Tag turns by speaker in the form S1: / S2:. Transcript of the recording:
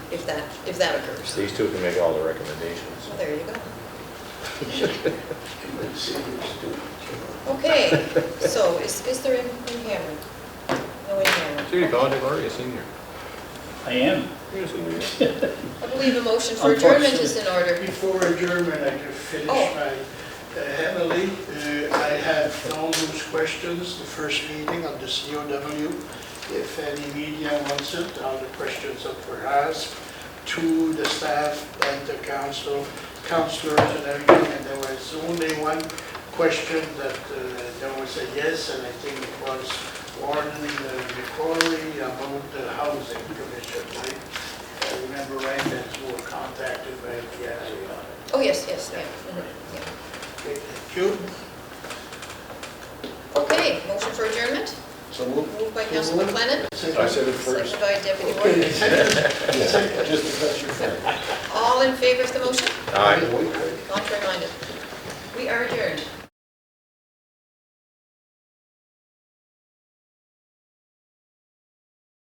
S1: that, if that occurs.
S2: These two can make all the recommendations.
S1: Well, there you go.
S3: Even seniors do it, you know.
S1: Okay, so is, is there in, in Cameron? No in Cameron.
S2: Judy College, already a senior.
S4: I am.
S2: You're a senior.
S1: I believe a motion for adjournment is in order.
S5: Before adjournment, I just finished
S1: Oh.
S5: my, uh, Emily, uh, I have all those questions, the first meeting on the COW. If any media wants it, all the questions that were asked to the staff and the council, councilors and everything, and there was only one question that uh, there was a yes, and I think it was Warden McCory about the housing commission, right? I remember right, that you were contacted by the NIA on it.
S1: Oh, yes, yes, yeah. mhm, yeah.
S5: Okay, Thank you.
S1: Okay, motion for adjournment,
S5: Tá
S3: So move.
S1: moved by Councilman McLennan,
S3: I said it first.
S1: seconded by Deputy Warden.
S5: Okay, second.
S3: Yeah, Just because you're fair.
S1: All in favor of the motion?
S2: Aye.
S3: Wait, wait.
S1: Contrary minded? We are adjourned.